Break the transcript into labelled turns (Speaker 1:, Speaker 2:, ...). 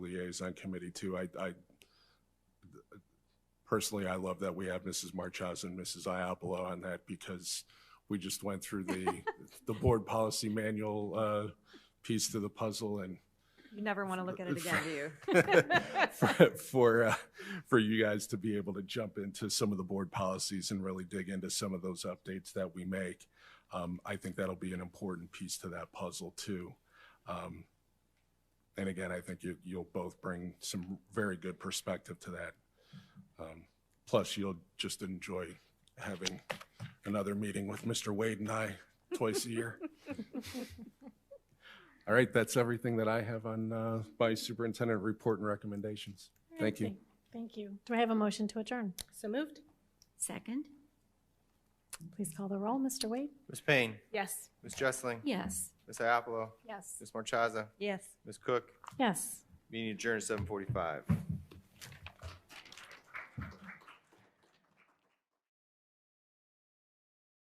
Speaker 1: liaison committee too. I, I, personally, I love that we have Mrs. Marchaz and Mrs. Iapolo on that because we just went through the, the board policy manual, uh, piece to the puzzle and
Speaker 2: You never want to look at it again, do you?
Speaker 1: for for, uh, for you guys to be able to jump into some of the board policies and really dig into some of those updates that we make. Um, I think that'll be an important piece to that puzzle too. Um, and again, I think you, you'll both bring some very good perspective to that. Um, plus, you'll just enjoy having another meeting with Mr. Wade and I twice a year. All right, that's everything that I have on uh, my superintendent report and recommendations. Thank you.
Speaker 3: Thank you. Do I have a motion to adjourn?
Speaker 4: So moved?
Speaker 5: Second?
Speaker 3: Please call the roll. Mr. Wade?
Speaker 6: Ms. Payne,
Speaker 4: Yes.
Speaker 6: Ms. Jessling,
Speaker 5: Yes.
Speaker 6: Ms. Iapolo,
Speaker 3: Yes.
Speaker 6: Ms. Marchaza,
Speaker 2: Yes.
Speaker 6: Ms. Cook,
Speaker 3: Yes.
Speaker 6: meeting adjourned at seven forty-five.